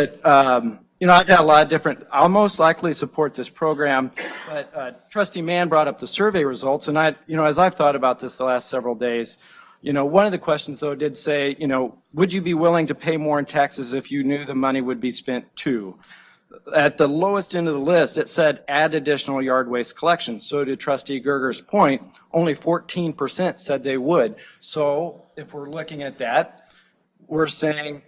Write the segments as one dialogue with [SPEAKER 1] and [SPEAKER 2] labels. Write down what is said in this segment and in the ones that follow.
[SPEAKER 1] But, um, you know, I've had a lot of different, I'll most likely support this program, but uh, trustee Mann brought up the survey results, and I, you know, as I've thought about this the last several days, you know, one of the questions, though, did say, you know, would you be willing to pay more in taxes if you knew the money would be spent to? At the lowest end of the list, it said add additional yard waste collection. So to trustee Gerger's point, only 14% said they would. So if we're looking at that, we're saying,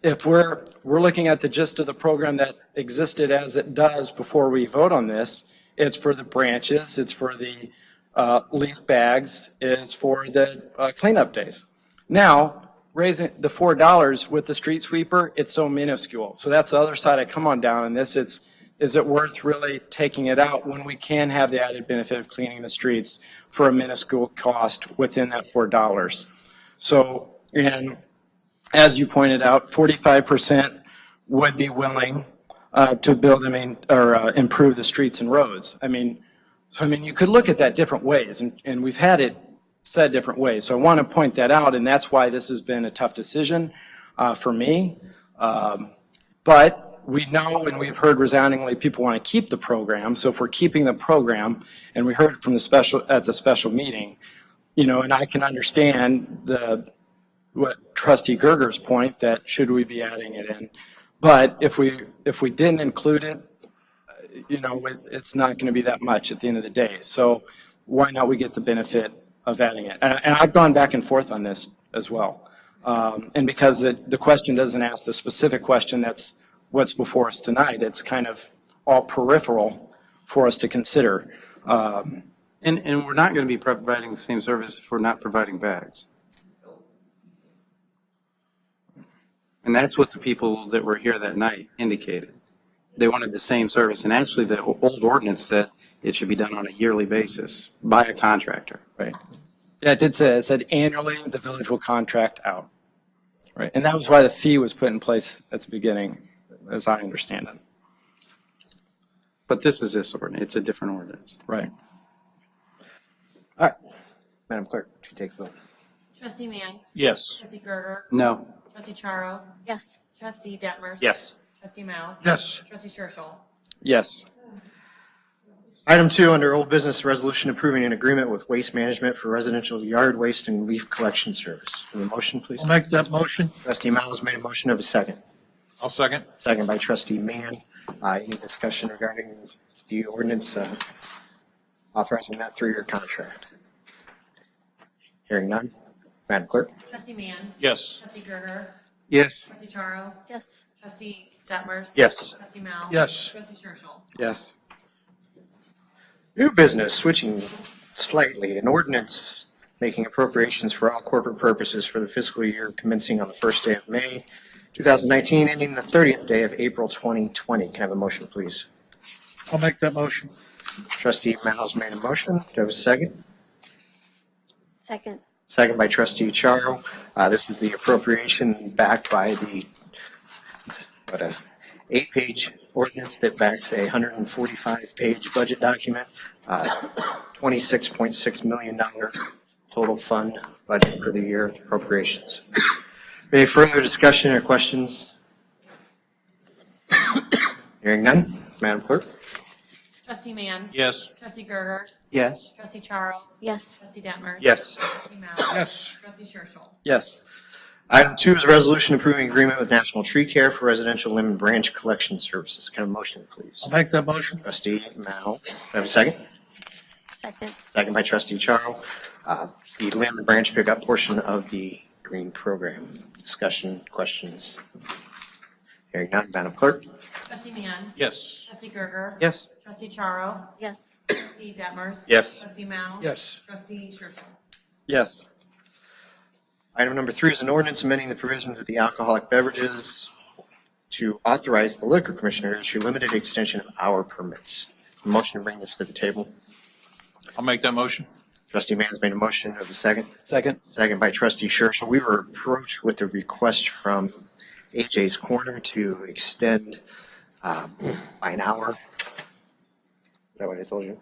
[SPEAKER 1] if we're, we're looking at the gist of the program that existed as it does before we vote on this, it's for the branches, it's for the uh, leaf bags, it's for the uh, cleanup days. Now, raising the four dollars with the street sweeper, it's so minuscule. So that's the other side I come on down in this, it's, is it worth really taking it out when we can have the added benefit of cleaning the streets for a minuscule cost within that four dollars? So, and as you pointed out, 45% would be willing uh, to build, I mean, or uh, improve the streets and roads. I mean, so I mean, you could look at that different ways, and, and we've had it said different ways. So I want to point that out, and that's why this has been a tough decision uh, for me. Um, But we know and we've heard resoundingly, people want to keep the program. So if we're keeping the program, and we heard from the special, at the special meeting, you know, and I can understand the, what trustee Gerger's point, that should we be adding it in? But if we, if we didn't include it, uh, you know, it- it's not going to be that much at the end of the day. So why not we get the benefit of adding it? And and I've gone back and forth on this as well. Um, And because the, the question doesn't ask the specific question, that's what's before us tonight. It's kind of all peripheral for us to consider. Um,
[SPEAKER 2] And, and we're not going to be providing the same service if we're not providing bags. And that's what the people that were here that night indicated. They wanted the same service, and actually, the o- old ordinance said it should be done on a yearly basis by a contractor.
[SPEAKER 1] Right. Yeah, it did say, it said annually, the village will contract out. Right, and that was why the fee was put in place at the beginning, as I understand it.
[SPEAKER 2] But this is this ordinance, it's a different ordinance.
[SPEAKER 1] Right.
[SPEAKER 3] All right. Madam Clerk, she takes vote.
[SPEAKER 4] Trustee Mann.
[SPEAKER 5] Yes.
[SPEAKER 4] Trustee Gerger.
[SPEAKER 2] No,
[SPEAKER 4] Trustee Charo.
[SPEAKER 6] Yes.
[SPEAKER 4] Trustee Detmers.
[SPEAKER 5] Mm. Yes.
[SPEAKER 4] Trustee Mao.
[SPEAKER 5] Yes.
[SPEAKER 4] Trustee Churchill.
[SPEAKER 1] Yes.
[SPEAKER 3] Item two, under old business resolution approving an agreement with Waste Management for residential yard waste and leaf collection service. Have a motion, please?
[SPEAKER 5] I'll make that motion.
[SPEAKER 3] Trustee Miles made a motion of a second.
[SPEAKER 5] I'll second.
[SPEAKER 3] Second by trustee Mann. Uh, Any discussion regarding the ordinance uh, authorizing that three-year contract? Hearing none. Madam Clerk?
[SPEAKER 4] Trustee Mann.
[SPEAKER 5] Yes.
[SPEAKER 4] Trustee Gerger.
[SPEAKER 2] yes.
[SPEAKER 4] Trustee Charo.
[SPEAKER 6] Yes.
[SPEAKER 4] Trustee Detmers.
[SPEAKER 3] Yes.
[SPEAKER 4] Trustee Mao.
[SPEAKER 5] Yes.
[SPEAKER 4] Trustee Churchill.
[SPEAKER 1] Yes.
[SPEAKER 3] New business, switching slightly, an ordinance making appropriations for all corporate purposes for the fiscal year commencing on the first day of May, 2019, ending the 30th day of April 2020. Can I have a motion, please?
[SPEAKER 5] I'll make that motion.
[SPEAKER 3] Trustee Miles made a motion. Do I have a second?
[SPEAKER 6] Second.
[SPEAKER 3] Second by trustee Charo. Uh, This is the appropriation backed by the, what a, eight-page ordinance that backs a 145-page budget document, uh, $26.6 million total fund budget for the year appropriations. Any further discussion or questions? Hearing none, Madam Clerk?
[SPEAKER 4] Trustee Mann.
[SPEAKER 5] Yes.
[SPEAKER 4] Trustee Gerger.
[SPEAKER 2] Yes.
[SPEAKER 4] Trustee Charo.
[SPEAKER 6] Yes.
[SPEAKER 4] Trustee Detmers.
[SPEAKER 1] Yes.
[SPEAKER 4] Trustee Mao.
[SPEAKER 5] Yes.
[SPEAKER 4] Trustee Churchill.
[SPEAKER 1] Yes.
[SPEAKER 3] Item two is a resolution approving agreement with National Tree Care for residential limb and branch collection services. Can I have a motion, please?
[SPEAKER 5] I'll make that motion.
[SPEAKER 3] Trustee Mao, do I have a second?
[SPEAKER 6] Second.
[SPEAKER 3] Second by trustee Charo. Uh, The limb and branch pickup portion of the green program. Discussion, questions? Hearing none, Madam Clerk?
[SPEAKER 4] Trustee Mann.
[SPEAKER 5] Yes.
[SPEAKER 4] Trustee Gerger.
[SPEAKER 2] Yes.
[SPEAKER 4] Trustee Charo.
[SPEAKER 6] Yes.
[SPEAKER 4] Trustee Detmers.
[SPEAKER 2] Yes.
[SPEAKER 4] Trustee Mao.
[SPEAKER 5] Yes.
[SPEAKER 4] Trustee Churchill.
[SPEAKER 1] Yes.
[SPEAKER 3] Item number three is an ordinance amending the provisions of the alcoholic beverages to authorize the liquor commissioner to issue limited extension of hour permits. Motion to bring this to the table.
[SPEAKER 5] I'll make that motion.
[SPEAKER 3] Trustee Mann's made a motion. Do I have a second?
[SPEAKER 1] Second.
[SPEAKER 3] Second by trustee Churchill. We were approached with a request from AJ's Corner to extend um, by an hour. Is that what I told you?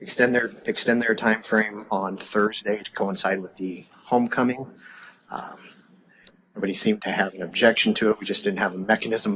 [SPEAKER 3] Extend their, extend their time frame on Thursday to coincide with the homecoming. Um, Nobody seemed to have an objection to it. We just didn't have a mechanism